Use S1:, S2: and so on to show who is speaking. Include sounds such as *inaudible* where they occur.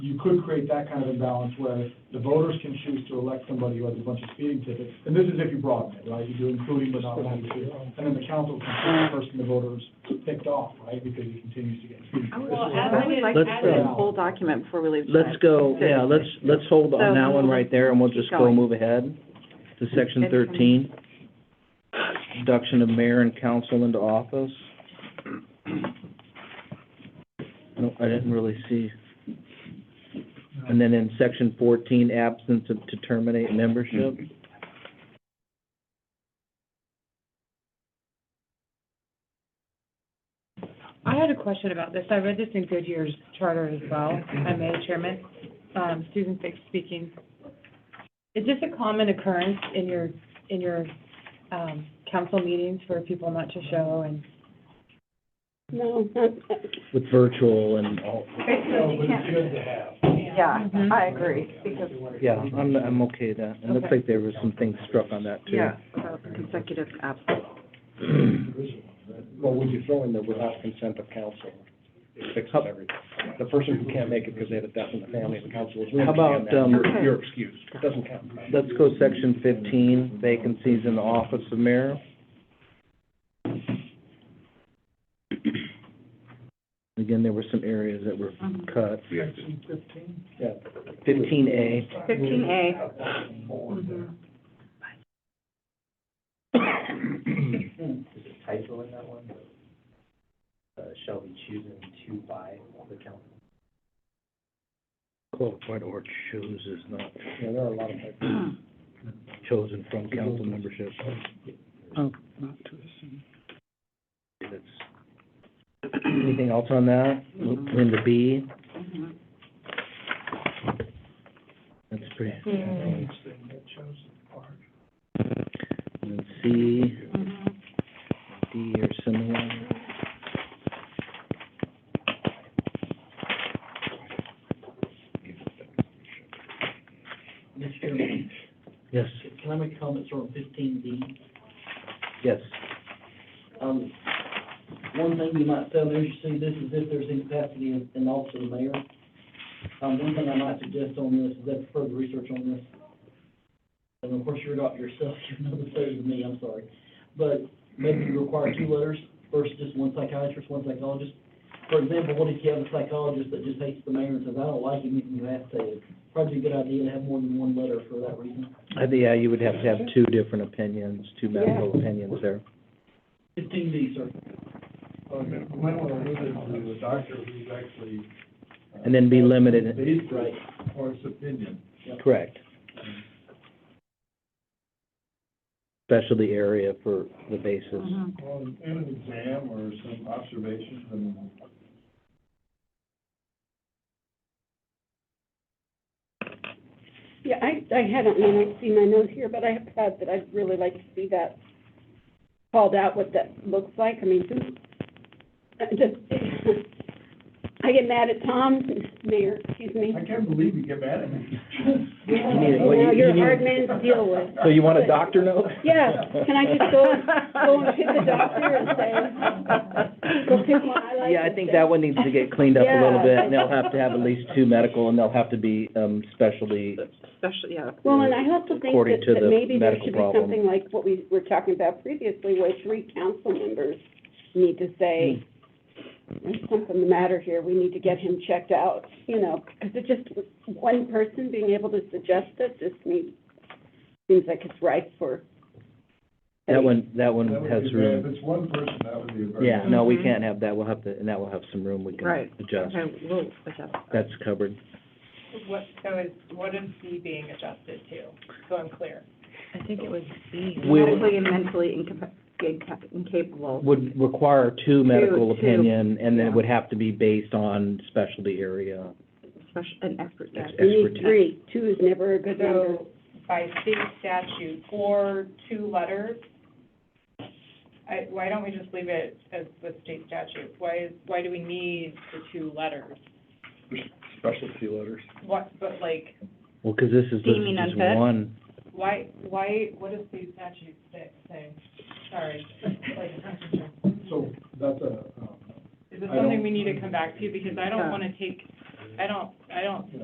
S1: you could create that kind of imbalance where the voters can choose to elect somebody who has a bunch of speeding tickets, and this is if you broaden it, right? You do including but not limited to, and then the council can pick the person the voters picked off, right, because he continues to get speeding. tickets.
S2: Well, as
S3: I would like to
S4: Let's,
S3: add in
S4: uh,
S3: a whole document before we leave.
S4: Let's
S3: tonight.
S4: go, yeah, let's, let's hold on
S3: So-
S4: that one right there, and we'll just go
S3: Going.
S4: move ahead to section
S3: Good.
S4: thirteen. Induction of mayor and council into office. No, I didn't really see. And then in section fourteen, absence of, to terminate membership.
S2: I had a question about this. I read this in Goodyear's charter as well. I made chairman, um, Susan Fix speaking. Is this a common occurrence in your, in your, um, council meetings for people not to show and?
S5: No, not,
S4: With virtual and all,
S1: No, but it's good to have.
S3: *clears throat* Yeah, I agree, because,
S4: yeah, I'm, I'm okay with that. It looks
S2: Okay.
S4: like there was some things struck on that too.
S3: yeah, so consecutive absence.
S6: Well, would you throw in there without consent of council? It fixes everything. The person who can't make it because they had a death in the family, the council is, we
S4: How about,
S6: understand that.
S4: um,
S6: You're- You're excused. It doesn't count.
S4: Let's go section fifteen, vacancies in the office of mayor. Again, there were some areas that were cut.
S6: Yeah.
S4: Fifteen A,
S3: Fifteen A.
S7: Is it typo in that one? Uh, shall be chosen to by the council.
S4: qualified or chooses not
S6: Yeah, there are a lot of types.
S4: *clears throat* chosen from council membership. That's- Anything else on that? We're into B, that's pretty. And then C, D or similar.
S8: Mr. Chairman,
S4: Yes,
S8: can I make comments on fifteen D?
S4: yes.
S8: Um, one thing you might tell there, you see, this is if there's incapacity in, in office of the mayor. Um, one thing I might suggest on this is that further research on this. And of course, you're not yourself, *laughs* you know this better than me, I'm sorry. But maybe you require two letters, first just one psychiatrist, one psychologist. For example, what if you have a psychologist that just hates the mayor and says, I don't like him, you have to. Probably a good idea to have more than one letter for that reason.
S4: I think, yeah, you would have to have two different opinions, two medical opinions there.
S8: Fifteen D, sir.
S1: Uh, you might want to limit it to the doctor who's actually. uh,
S4: And then be limited.
S1: Based on his opinion.
S4: Correct. Specialty area for the basis.
S9: Mm-hmm.
S3: Mhm.
S1: Well, in an exam or some observations and.
S5: yeah, I, I haven't, I mean, I see my note here, but I have thought that I'd really like to see that called out, what that looks like. I mean, who, I just, *laughs* I get mad at Tom, Mayor, excuse me.
S1: I can't believe you get mad at me.
S4: *laughs* You need- well,
S5: Now,
S4: you-
S5: you're
S4: you
S5: a
S4: need-
S5: hard man to deal with.
S4: So you want a doctor note?
S5: Yeah, can I
S4: *laughs*
S5: just go, go and pick a doctor and say, go pick one I like?
S4: Yeah, I think
S5: instead?
S4: that one needs to get cleaned up a little
S5: Yeah.
S4: bit, and they'll have to have at least two medical, and they'll have to be, um, specialty.
S3: Special, yeah.
S5: Well, and I also think
S4: According
S5: that,
S4: to the
S5: that maybe there
S4: medical
S5: should be
S4: problem.
S5: something like what we were talking about previously, where three council members need to say,
S4: Hmm.
S5: there's something the matter here, we need to get him checked out, you know, because it just, one person being able to suggest it just seems, seems like it's ripe for.
S4: That one, that one
S1: That would
S4: has
S1: be bad.
S4: room.
S1: If it's one person, that would be a very.
S4: Yeah, no, we
S3: Mhm.
S4: can't have that, we'll have to, and that will have some room we can
S3: Right.
S4: adjust.
S3: Okay, we'll adjust.
S4: That's covered.
S9: What, so is, what is B being adjusted to, so I'm clear?
S2: I think it was B.
S4: We'll-
S3: Medically and mentally inca- inca- incapable.
S4: Would require two medical
S3: two.
S4: opinion, and then it
S3: Yeah.
S4: would have to be based on specialty area.
S3: Special, an expert, yeah.
S4: Ex-
S5: We need
S4: expertise.
S5: three, two is never a good number.
S9: So by state statute or two letters, I, why don't we just leave it as with state statute? Why, is why do we need the two letters?
S6: Specialty letters.
S9: What, but like,
S4: Well, 'cause this is, this
S3: Deeming
S4: is
S3: unfit?
S4: one.
S9: why, why, what does state statute say, say? Sorry. Like,
S1: So that's a, um,
S9: Is this
S1: I don't-
S9: something we need to come back to? Because I don't
S3: Yeah.
S9: want to take I don't, I don't